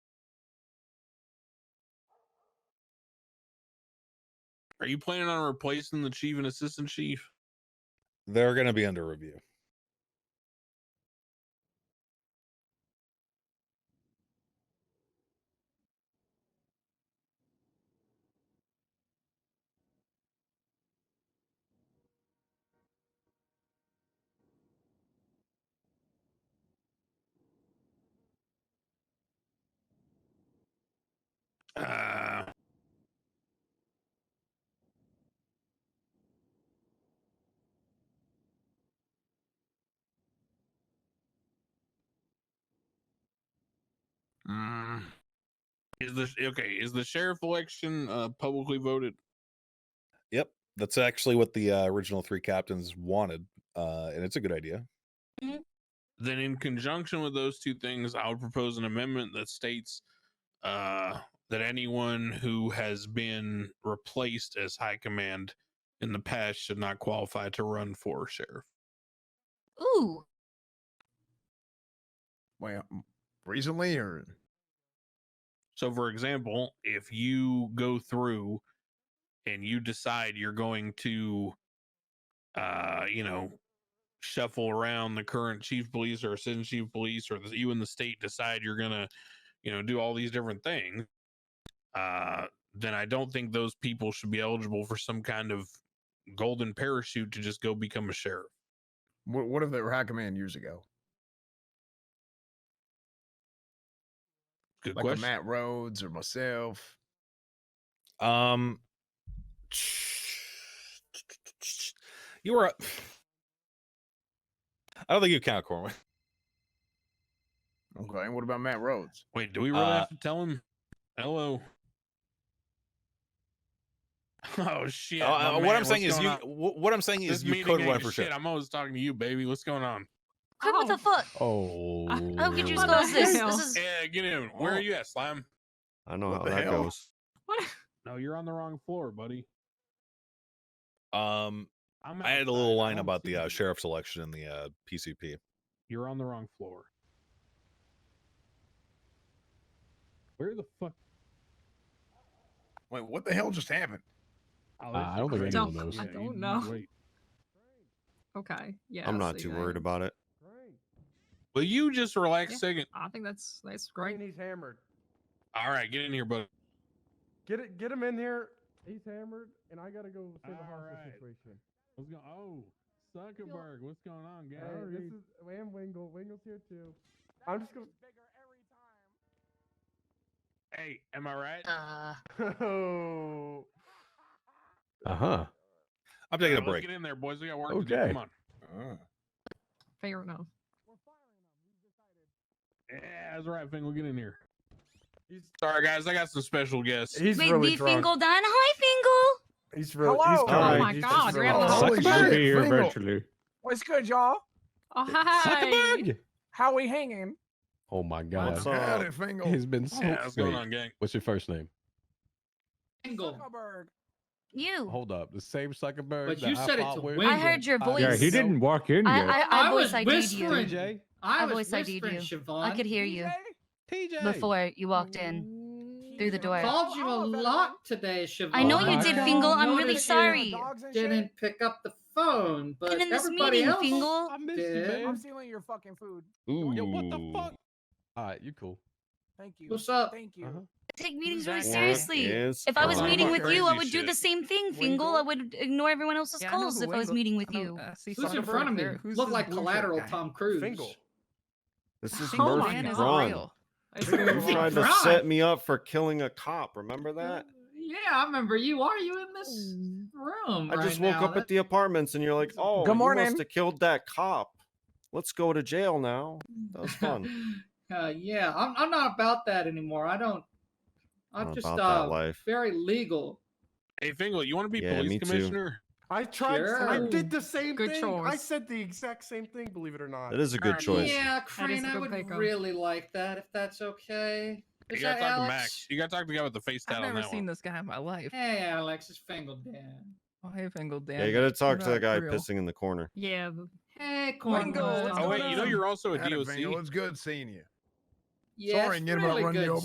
Are you planning on replacing the chief and assistant chief? They're going to be under review. Uh, mm. Is the okay? Is the sheriff election uh, publicly voted? Yep, that's actually what the uh, original three captains wanted, uh, and it's a good idea. Then, in conjunction with those two things, I would propose an amendment that states uh, that anyone who has been replaced as high command in the past should not qualify to run for sheriff. Ooh, Wait, um, recently or So, for example, if you go through and you decide you're going to, uh, you know, shuffle around the current chief police or assistant chief police, or the, you and the state decide you're gonna, you know, do all these different things, uh, then I don't think those people should be eligible for some kind of golden parachute to just go become a sheriff. what? What if they were high command years ago, Good like a question. Matt Rhodes or myself? Um, you were. up. I don't think you count Corwin. Okay, and what about Matt Rhodes? Wait, do we really Uh, have to tell him? Hello. Oh shit! my Uh, what man, I'm saying what's is you. going on? wh- What I'm saying This is you meeting could ain't run for shit. shit. I'm always talking to you, baby. What's going on? Quinn, what Oh. the fuck? Oh, I don't get you What as the well as this. hell? This is Yeah, get in. Where Oh. are you at, Slime? I Oh, know What how the that hell? goes. What? No, you're on the wrong floor, buddy. Um, I'm I had a little outside. I line don't about see the uh, you. sheriff's election in the uh, PCP. You're on the wrong floor. Where the fuck? Wait, what the hell just happened? Oh, Uh, that's I don't think crazy. anyone Don't- knows. I Yeah, don't you- you know. wait. Okay. Yeah. I'm not so too yeah, worried about it. Will you just relax Yeah. a second? I think that's that's great. he's hammered. All right, get in here, buddy. Get it. Get him in here. He's hammered, and I gotta go save the hostage Alright. situation. What's going? Oh, Zuckerberg, what's going on, guys? Hey, this is and Wingle. Wingle's here too. I'm just gonna. Hey, am I right? Uh, Oh. Uh huh. I'm taking a Alright, break. Let's get in there, boys. We got work to do. Okay. Come on. Uh, Fair enough. Yeah, that's right, Fingal. Get in here. He's Sorry, guys. I got some special guests. he's Big really D drunk. Fingal done. Hi, Fingal. He's really. He's Hello. drunk. Oh my He's God, just you're having really- a Holy Suck shit, Suckerberg be here Pringle. eventually. What's good, y'all? Oh hi. Suckerberg! How we hanging? Oh my What's god. up, up? He's been so Yeah, what's going fake. on, gang? What's your first name? Fingal. Zuckerberg. Oh, You. Hold up. The same Zuckerberg. But that you I said it fought to with? Wayne. I heard your Uh, voice. Yeah, he so- didn't walk in I, yet. I, I, I voice was ID'd you. whispering. TJ. I, I was voice ID'd whispering, Siobhan. I could hear you TJ. before you walked in. through the door. called you Oh, a that lot today, Siobhan. I know you I did, don't Fingal. I'm notice really you sorry. Didn't pick up the phone, but And in this everybody meeting, else, Fingal. I missed did. you, I'm man. stealing your fucking food. Yo, what the Ooh. fuck? All right, you cool. Thank you. What's up? Thank you. Uh-huh. I take meetings really Exactly. seriously. Yes, If I was Fine. meeting with you, I Crazy would do the shit. same thing, Fingal. I would ignore everyone else's Yeah, I know calls who if I was Wingo- meeting with I know, you. uh, see Who's in someone front of me? there. Who's Look this like blue shirt collateral guy? Tom Cruise. Fingal. This is Oh, Murphy man, is Braun. unreal. It's You Fingal. tried to Braun. set me up for killing a cop. Remember that? Yeah, I remember you. Are you in this room? I just right woke now? up at the apartments and you're like, oh, Good you morning." must have killed that cop. Let's go to jail now. That was fun. uh, yeah, I'm, I'm not about that anymore. I don't. I'm Not just about that uh, life. very legal. Hey, Fingal, you want to be Yeah, me police too. commissioner? I tried. I Sure. did the same Good thing. I choice. said the exact same thing. Believe it or not. That is a good Alright, choice. Yeah, That is Crane, a I good would pick, um. really like that if that's okay. Is you gotta that talk Alex? to Max. You gotta talk to the guy with the face I've tat on never that seen one. this guy in my life. Hey, Alex, it's Fangled Dan. Oh, hey, Fingal Dan. Yeah, you got to talk to not the guy real. pissing in the corner. Yeah. but- Hey, Fingal, Cornwall. what's Oh wait, you know Um, you're also a Howdy, Fingal. DOC. It's good seeing you. yeah, sorry, it's Nirmal really run you good over.